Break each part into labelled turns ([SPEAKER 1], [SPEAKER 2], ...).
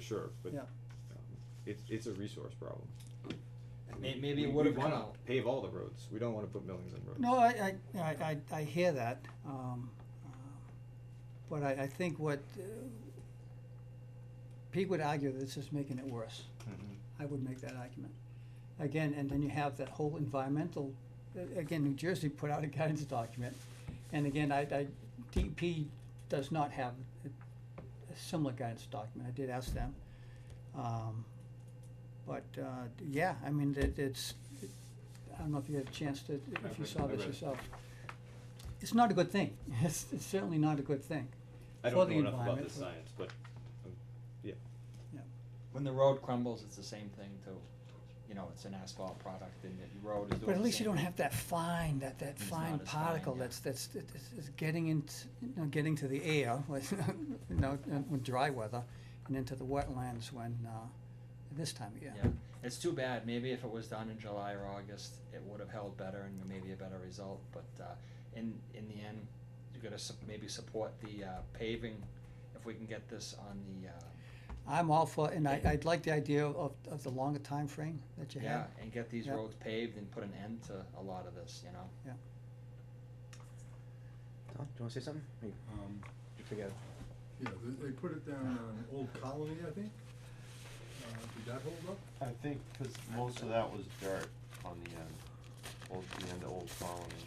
[SPEAKER 1] sure, but
[SPEAKER 2] Yeah.
[SPEAKER 1] um, it's, it's a resource problem.
[SPEAKER 3] May- maybe it
[SPEAKER 1] We-
[SPEAKER 3] would've
[SPEAKER 1] We wanna
[SPEAKER 3] come out.
[SPEAKER 1] pave all the roads, we don't wanna put millions on roads.
[SPEAKER 2] No, I, I, I, I I hear that, um, um, but I, I think what, uh, Pete would argue that this is making it worse.
[SPEAKER 1] Mhm.
[SPEAKER 2] I would make that argument. Again, and then you have that whole environmental, a- again, New Jersey put out a guidance document. And again, I, I, DEP does not have a a similar guidance document. I did ask them. Um, But, uh, yeah, I mean, it, it's, I don't know if you had a chance to, if
[SPEAKER 1] I've
[SPEAKER 2] you
[SPEAKER 1] read-
[SPEAKER 2] saw
[SPEAKER 1] I
[SPEAKER 2] this
[SPEAKER 1] read it.
[SPEAKER 2] yourself. It's not a good thing. It's, it's certainly not a good thing.
[SPEAKER 1] I
[SPEAKER 2] for
[SPEAKER 1] don't
[SPEAKER 2] the
[SPEAKER 1] know enough about
[SPEAKER 2] environment,
[SPEAKER 1] the
[SPEAKER 2] but-
[SPEAKER 1] science, but, um, yeah,
[SPEAKER 3] When the road crumbles, it's the same thing too. You know, it's an asphalt product and the road is doing the same.
[SPEAKER 2] But at least you don't have that fine, that, that
[SPEAKER 3] It's
[SPEAKER 2] fine
[SPEAKER 3] not as fine,
[SPEAKER 2] particle
[SPEAKER 3] yeah.
[SPEAKER 2] that's, that's, that's is getting into, you know, getting to the air, like, you know, in in dry weather, and into the wetlands when, uh, this time of year.
[SPEAKER 3] Yeah, it's too bad. Maybe if it was done in July or August, it would have held better and maybe a better result, but, uh, in, in the end, you gotta sup- maybe support the, uh, paving, if we can get this on the, uh,
[SPEAKER 2] I'm all for, and I, I'd like the idea of, of the longer time frame that you
[SPEAKER 3] yeah,
[SPEAKER 2] have.
[SPEAKER 3] and get these
[SPEAKER 2] Yeah.
[SPEAKER 3] roads paved and put an end to a lot of this, you know?
[SPEAKER 4] Tom, do you wanna say something? Or You
[SPEAKER 5] Um,
[SPEAKER 4] you forget.
[SPEAKER 5] yeah, they, they put it down on Old Colony, I think. Uh, did that hold up?
[SPEAKER 6] I think, cause most of that was dirt on the end, old, the end of Old Colony,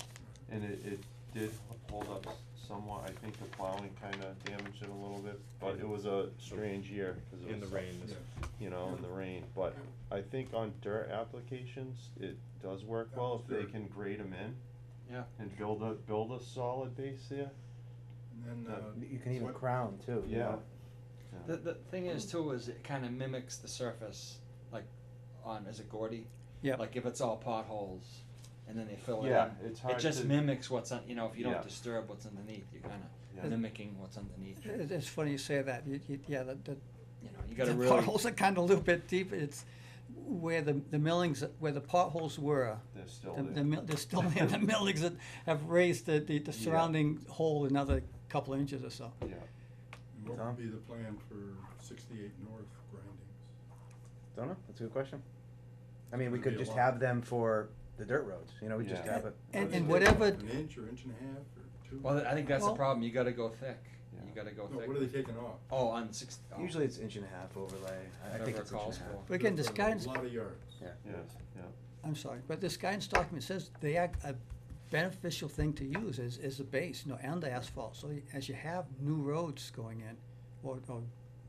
[SPEAKER 6] and it, it did hold up somewhat, I think the plowing kinda damaged it a little bit, but it was a strange year, cause it
[SPEAKER 1] in the
[SPEAKER 6] was,
[SPEAKER 1] rain, this-
[SPEAKER 6] you know, in the rain, but I think on dirt applications, it does work
[SPEAKER 5] That
[SPEAKER 6] well
[SPEAKER 5] was
[SPEAKER 6] if they
[SPEAKER 5] dirt.
[SPEAKER 6] can grade them in
[SPEAKER 3] Yeah.
[SPEAKER 6] and build a, build a solid base there,
[SPEAKER 5] And then,
[SPEAKER 6] Yeah.
[SPEAKER 5] uh.
[SPEAKER 4] You can even
[SPEAKER 5] what-
[SPEAKER 4] crown too,
[SPEAKER 6] yeah.
[SPEAKER 4] you know?
[SPEAKER 6] Yeah.
[SPEAKER 3] The, the thing is too, is it kinda mimics the surface, like, on, is it Gordy?
[SPEAKER 2] Yep.
[SPEAKER 3] Like if it's all potholes, and then they fill it in.
[SPEAKER 6] Yeah, it's hard
[SPEAKER 3] It just
[SPEAKER 6] to-
[SPEAKER 3] mimics what's on, you know, if you
[SPEAKER 6] Yeah.
[SPEAKER 3] don't disturb what's underneath, you're
[SPEAKER 6] Yeah.
[SPEAKER 3] kinda mimicking what's underneath. You
[SPEAKER 2] It, it's funny you say that, you, you, yeah, the, the
[SPEAKER 3] know, you gotta
[SPEAKER 2] the
[SPEAKER 3] really.
[SPEAKER 2] potholes are kinda a little bit deep, it's where the, the millings, where the potholes were,
[SPEAKER 6] They're still
[SPEAKER 2] The,
[SPEAKER 6] there.
[SPEAKER 2] the, mil- they're still there, the millings that have raised the, the, the
[SPEAKER 6] Yeah.
[SPEAKER 2] surrounding hole another couple of inches or so.
[SPEAKER 6] Yeah,
[SPEAKER 5] and What
[SPEAKER 4] Tom?
[SPEAKER 5] would be the plan for sixty-eight north grindings?
[SPEAKER 4] Don't know, that's a good question. I mean, we
[SPEAKER 5] Could
[SPEAKER 4] could
[SPEAKER 5] be a
[SPEAKER 4] just
[SPEAKER 5] lot.
[SPEAKER 4] have them for the dirt roads, you know, we just
[SPEAKER 6] Yeah.
[SPEAKER 4] have it.
[SPEAKER 2] And- and
[SPEAKER 5] Is it
[SPEAKER 2] whatever-
[SPEAKER 5] An inch or inch and a half or two?
[SPEAKER 3] Well, I think that's the
[SPEAKER 2] Well-
[SPEAKER 3] problem, you gotta go thick, you
[SPEAKER 6] Yeah.
[SPEAKER 3] gotta go
[SPEAKER 5] No,
[SPEAKER 3] thick.
[SPEAKER 5] what are they taking off?
[SPEAKER 3] Oh, on six, oh,
[SPEAKER 4] Usually it's inch and a half overlay, I- I think
[SPEAKER 3] whatever it
[SPEAKER 4] it's inch and
[SPEAKER 3] calls
[SPEAKER 4] a half.
[SPEAKER 3] for.
[SPEAKER 2] But again, this
[SPEAKER 5] For a
[SPEAKER 2] guidance,
[SPEAKER 5] Lot of yards.
[SPEAKER 6] yeah, yeah.
[SPEAKER 2] I'm sorry, but this guidance document says they are a beneficial thing to use as, as the base, you know, and the asphalt. So you- as you have new roads going in, or, or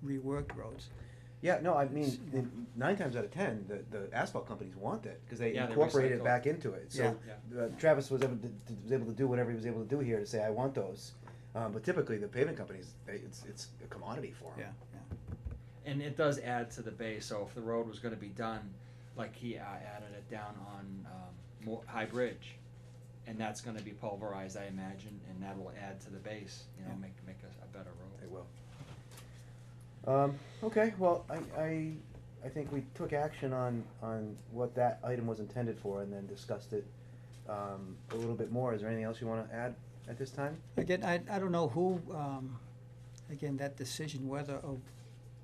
[SPEAKER 2] reworked roads,
[SPEAKER 4] Yeah, no, I
[SPEAKER 2] It's-
[SPEAKER 4] mean, the- nine times out of ten, the, the asphalt companies want it, cause they
[SPEAKER 3] Yeah, they
[SPEAKER 4] incorporate
[SPEAKER 3] recycle.
[SPEAKER 4] it back into it, so.
[SPEAKER 3] Yeah.
[SPEAKER 4] uh, Travis was able to, to- was able to do whatever he was able to do here to say, I want those, um, but typically the pavement companies, they, it's, it's a commodity for
[SPEAKER 2] yeah,
[SPEAKER 4] them.
[SPEAKER 2] yeah.
[SPEAKER 3] and it does add to the bay, so if the road was gonna be done, like he uh, added it down on, um, Mo- High Bridge. And that's gonna be pulverized, I imagine, and that'll add to the base, you know,
[SPEAKER 2] Yeah.
[SPEAKER 3] make, make a, a better road.
[SPEAKER 4] They will. Um, okay, well, I, I, I think we took action on, on what that item was intended for and then discussed it, um, a little bit more. Is there anything else you wanna add at this time?
[SPEAKER 2] Again, I, I don't know who, um, again, that decision whether or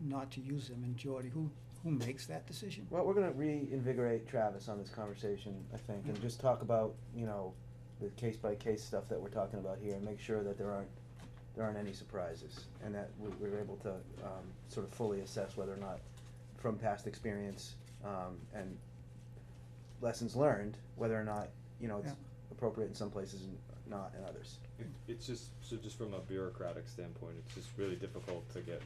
[SPEAKER 2] not to use them in Geordie, who, who makes that decision?
[SPEAKER 4] Well, we're gonna reinvigorate Travis on this conversation, I think, and just talk about, you know, the case by case stuff that we're talking about here and make sure that there aren't, there aren't any surprises. And that we, we're able to, um, sort of fully assess whether or not, from past experience, um, and lessons learned, whether or not, you know, it's
[SPEAKER 2] Yeah.
[SPEAKER 4] appropriate in some places and not in others.
[SPEAKER 1] It- It's just, so just from a bureaucratic standpoint, it's just really difficult to get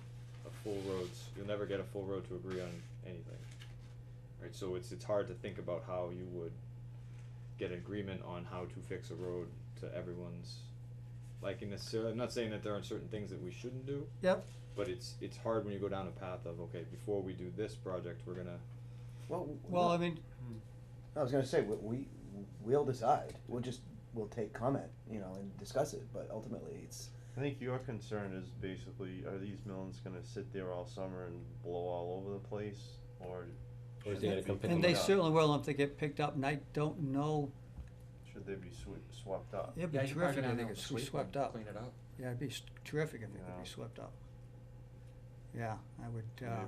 [SPEAKER 1] a full roads, you'll never get a full road to agree on anything. Right, so it's, it's hard to think about how you would get agreement on how to fix a road to everyone's liking necessarily, I'm not saying that there aren't certain things that we shouldn't do,
[SPEAKER 2] Yep,
[SPEAKER 1] but it's, it's hard when you go down a path of, okay, before we do this project, we're gonna,
[SPEAKER 4] Well, w-
[SPEAKER 2] well, I mean,
[SPEAKER 4] I was gonna say, we, we, we'll decide, we'll just, we'll take comment, you know, and discuss it, but ultimately, it's,
[SPEAKER 6] I think your concern is basically, are these melons gonna sit there all summer and blow all over the place, or?
[SPEAKER 7] Or is
[SPEAKER 6] should
[SPEAKER 7] he gonna
[SPEAKER 6] be-
[SPEAKER 7] come pick
[SPEAKER 2] and
[SPEAKER 7] them
[SPEAKER 2] they
[SPEAKER 7] up?
[SPEAKER 2] certainly will if they get picked up, and I don't know
[SPEAKER 6] Should they be swe- swapped up?
[SPEAKER 2] It'd be
[SPEAKER 3] Yeah, you probably
[SPEAKER 2] terrific,
[SPEAKER 3] gonna
[SPEAKER 2] I
[SPEAKER 3] have
[SPEAKER 2] think,
[SPEAKER 3] to
[SPEAKER 2] if it
[SPEAKER 3] sweep
[SPEAKER 2] was
[SPEAKER 3] them,
[SPEAKER 2] swept up.
[SPEAKER 3] Clean it up.
[SPEAKER 2] Yeah, it'd be s- terrific if it could
[SPEAKER 6] Yeah.
[SPEAKER 2] be swept up. Yeah, I would, uh.
[SPEAKER 6] Maybe